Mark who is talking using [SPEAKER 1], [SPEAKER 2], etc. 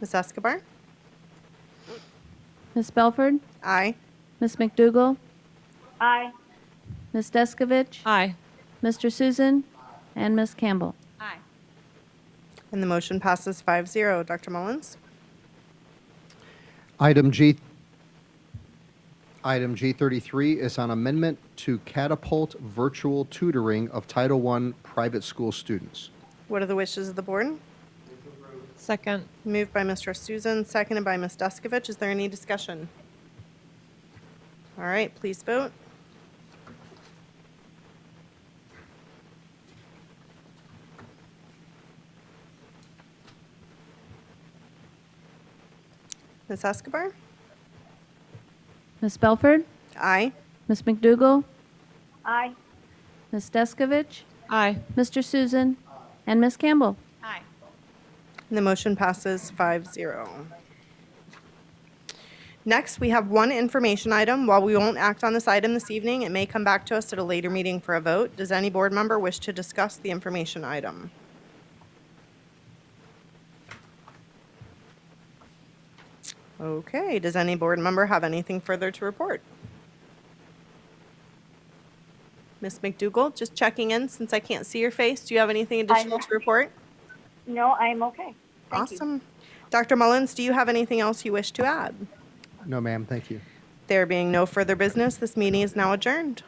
[SPEAKER 1] Ms. Escobar?
[SPEAKER 2] Ms. Belford?
[SPEAKER 1] Aye.
[SPEAKER 2] Ms. McDougal?
[SPEAKER 3] Aye.
[SPEAKER 2] Ms. Deskovich?
[SPEAKER 4] Aye.
[SPEAKER 2] Mr. Susan? And Ms. Campbell?
[SPEAKER 4] Aye.
[SPEAKER 1] And the motion passes 5-0. Dr. Mullins?
[SPEAKER 5] Item G, item G33 is on amendment to catapult virtual tutoring of Title I private school students.
[SPEAKER 1] What are the wishes of the board?
[SPEAKER 4] Second.
[SPEAKER 1] Moved by Mr. Susan, seconded by Ms. Deskovich. Is there any discussion? All right, please vote. Ms. Escobar?
[SPEAKER 2] Ms. Belford?
[SPEAKER 1] Aye.
[SPEAKER 2] Ms. McDougal?
[SPEAKER 3] Aye.
[SPEAKER 2] Ms. Deskovich?
[SPEAKER 4] Aye.
[SPEAKER 2] Mr. Susan? And Ms. Campbell?
[SPEAKER 4] Aye.
[SPEAKER 1] And the motion passes 5-0. Next, we have one information item. While we won't act on this item this evening, it may come back to us at a later meeting for a vote. Does any board member wish to discuss the information item? Okay, does any board member have anything further to report? Ms. McDougal, just checking in since I can't see your face. Do you have anything additional to report?
[SPEAKER 3] No, I'm okay. Thank you.
[SPEAKER 1] Awesome. Dr. Mullins, do you have anything else you wish to add?
[SPEAKER 5] No, ma'am, thank you.
[SPEAKER 1] There being no further business, this meeting is now adjourned.